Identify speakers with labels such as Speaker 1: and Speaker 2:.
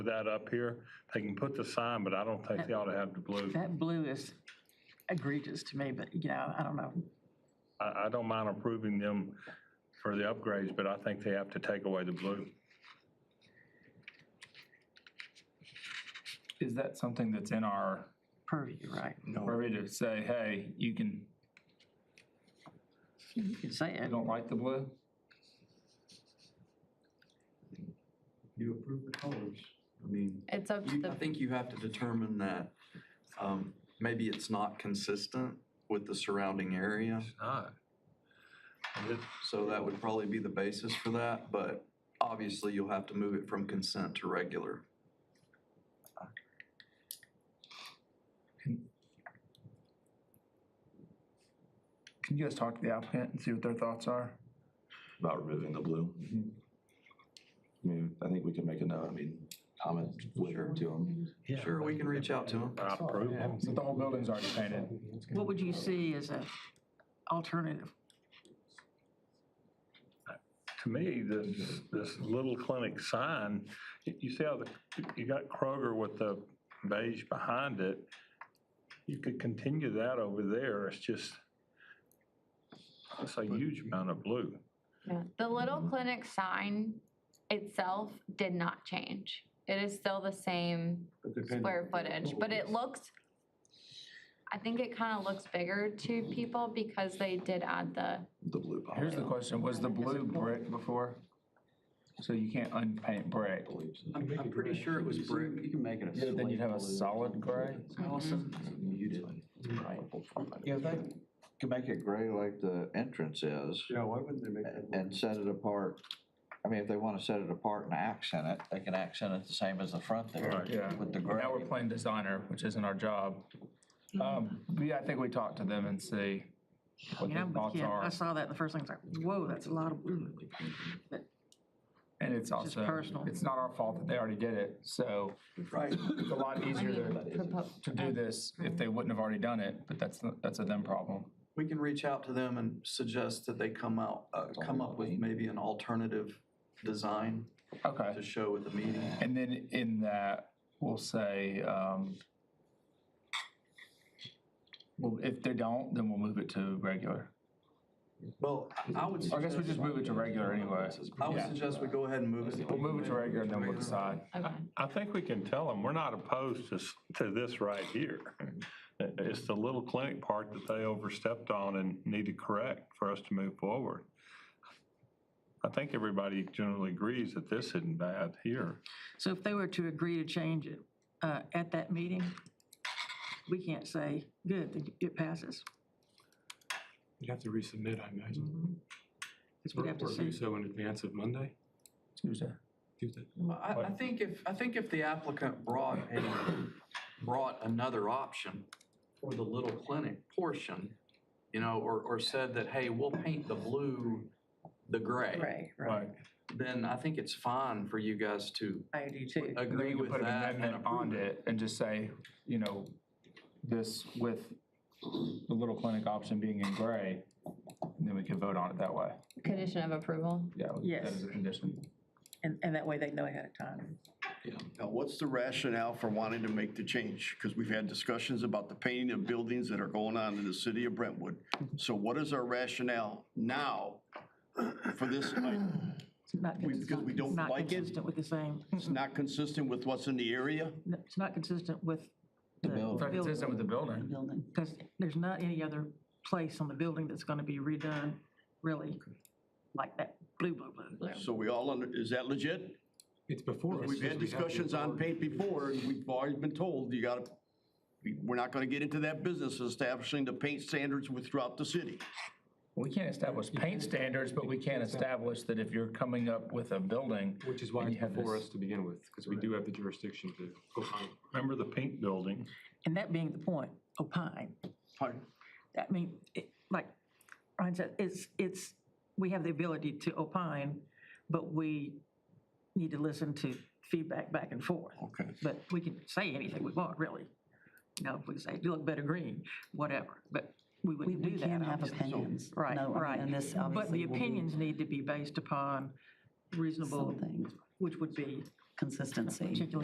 Speaker 1: that up here. They can put the sign, but I don't think they ought to have the blue.
Speaker 2: That blue is egregious to me, but you know, I don't know.
Speaker 1: I, I don't mind approving them for the upgrades, but I think they have to take away the blue.
Speaker 3: Is that something that's in our
Speaker 2: Purview, right?
Speaker 3: purview to say, hey, you can,
Speaker 2: You can say
Speaker 3: you
Speaker 2: it.
Speaker 3: don't like the blue?
Speaker 4: You approve the colors. I mean,
Speaker 5: It's up to
Speaker 4: you- I
Speaker 5: the,
Speaker 4: think you have to determine that um, maybe it's not consistent with the surrounding area.
Speaker 1: Ah.
Speaker 4: So that would probably be the basis for that, but obviously you'll have to move it from consent to regular.
Speaker 3: Can you guys talk to the applicant and see what their thoughts are?
Speaker 6: about removing the blue. I mean, I think we can make a note, I mean, comment later to them.
Speaker 4: Sure, we can reach out to them.
Speaker 1: I approve them.
Speaker 3: But the whole building's already painted.
Speaker 2: What would you see as a alternative?
Speaker 1: To me, this, this little clinic sign, you you see how the, you got Kroger with the beige behind it. You could continue that over there. It's just, it's a huge amount of blue.
Speaker 5: yeah. the Little Clinic sign itself did not change. It is still the same square footage, but it looks, I think it kind of looks bigger to people because they did add the,
Speaker 6: The blue policy.
Speaker 3: Here's the question, was the blue brick before? So you can't unpaint brick?
Speaker 7: I'm, I'm pretty sure it was brick. You can make it a.
Speaker 3: Yeah, then you'd have a solid gray.
Speaker 8: Yeah, if they could make it gray like the entrance is
Speaker 4: Yeah, why wouldn't they make
Speaker 8: and set it apart. I mean, if they want to set it apart and accent it, they can accent it the same as the front there
Speaker 1: Right.
Speaker 3: Yeah.
Speaker 8: with the
Speaker 3: Now we're
Speaker 8: gray.
Speaker 3: playing designer, which isn't our job. Um, but yeah, I think we talk to them and see what
Speaker 2: You know, I'm
Speaker 3: their
Speaker 2: with
Speaker 3: thoughts
Speaker 2: you. Mm-hmm. I
Speaker 3: are.
Speaker 2: saw that the first thing, it's like, whoa, that's a lot of blue.
Speaker 3: And it's
Speaker 2: It's just
Speaker 3: also,
Speaker 2: personal.
Speaker 3: it's not our fault that they already did it, so
Speaker 4: Right.
Speaker 3: it's a lot
Speaker 5: I
Speaker 3: easier
Speaker 5: mean,
Speaker 3: to,
Speaker 5: propo-
Speaker 3: to do this if they wouldn't have already done it, but that's, that's a them problem.
Speaker 4: We can reach out to them and suggest that they come out, uh, come up with maybe an alternative design to
Speaker 3: Okay,
Speaker 4: show at the meeting.
Speaker 3: and then in that, we'll say, um, well, if they don't, then we'll move it to regular.
Speaker 4: Well, I would
Speaker 3: Or I guess we just
Speaker 4: suggest,
Speaker 3: move it to regular anyway.
Speaker 4: I would
Speaker 3: yeah.
Speaker 4: suggest we go ahead and move it.
Speaker 3: We'll move it to regular and then we'll decide.
Speaker 5: Okay.
Speaker 1: I think we can tell them, we're not opposed to, s- to this right here. It's the little clinic part that they overstepped on and need to correct for us to move forward. I think everybody generally agrees that this isn't bad here.
Speaker 2: So if they were to agree to change it uh, at that meeting, we can't say, good, then it passes.
Speaker 9: You'd have to resubmit, I imagine.
Speaker 2: Because Mm-hmm. we'd have to
Speaker 9: Or
Speaker 2: see.
Speaker 9: do so in advance of Monday,
Speaker 3: Tuesday.
Speaker 9: Tuesday.
Speaker 4: Well, I, I think if, I think if the applicant brought, a- brought another option for the little clinic portion, you know, or, or said that, hey, we'll paint the blue the gray,
Speaker 2: Right, right.
Speaker 4: then I think it's fine for you guys to
Speaker 2: I do too.
Speaker 3: Then
Speaker 4: agree
Speaker 3: you can
Speaker 4: with
Speaker 3: put an
Speaker 4: that and
Speaker 3: amendment on
Speaker 4: approve it.
Speaker 3: it and just say, you know, this with the little clinic option being in gray, and then we can vote on it that way.
Speaker 5: Condition of approval.
Speaker 3: Yeah. we-
Speaker 2: Yes.
Speaker 3: That is a condition.
Speaker 2: And, and that way they know ahead of time.
Speaker 10: Now, what's the rationale for wanting to make the change? Because we've had discussions about the painting of buildings that are going on in the city of Brentwood. So what is our rationale now for this? item?
Speaker 2: It's not
Speaker 10: We- because we don't
Speaker 2: consistent-
Speaker 10: like it?
Speaker 2: Not consistent with the same,
Speaker 10: It's not consistent with what's in the area?
Speaker 2: it's not consistent with the
Speaker 3: It's not consistent with the building.
Speaker 2: Because there's not any other place on the building that's going to be redone, really, like that blue, blue, blue, blue.
Speaker 10: So we all, under is that legit?
Speaker 9: It's before us.
Speaker 10: We've had
Speaker 9: so we have the
Speaker 10: discussions on
Speaker 9: authority.
Speaker 10: paint before, and we've always been told, you gotta, we- we're not gonna get into that business establishing the paint standards with- throughout the city.
Speaker 3: We can't establish paint standards, but we can establish that if you're coming up with a building.
Speaker 9: Which is why
Speaker 3: and
Speaker 9: it's
Speaker 3: you have
Speaker 9: before
Speaker 3: this-
Speaker 9: us to begin with, because we do have the jurisdiction to opine.
Speaker 1: Remember the pink building?
Speaker 2: And that being the point, opine.
Speaker 10: Pardon?
Speaker 2: I mean, it- like Ryan said, it's, it's, we have the ability to opine, but we need to listen to feedback back and forth.
Speaker 10: Okay.
Speaker 2: But we can say anything we want, really. You know, if we say, you look better green, whatever, but we wouldn't do that.
Speaker 11: can have
Speaker 2: obviously.
Speaker 11: opinions.
Speaker 2: Right,
Speaker 11: No, I mean,
Speaker 2: right.
Speaker 11: And this
Speaker 2: But the
Speaker 11: obviously will be
Speaker 2: opinions need to be based upon reasonable,
Speaker 11: something,
Speaker 2: which would be
Speaker 11: consistency.
Speaker 2: particular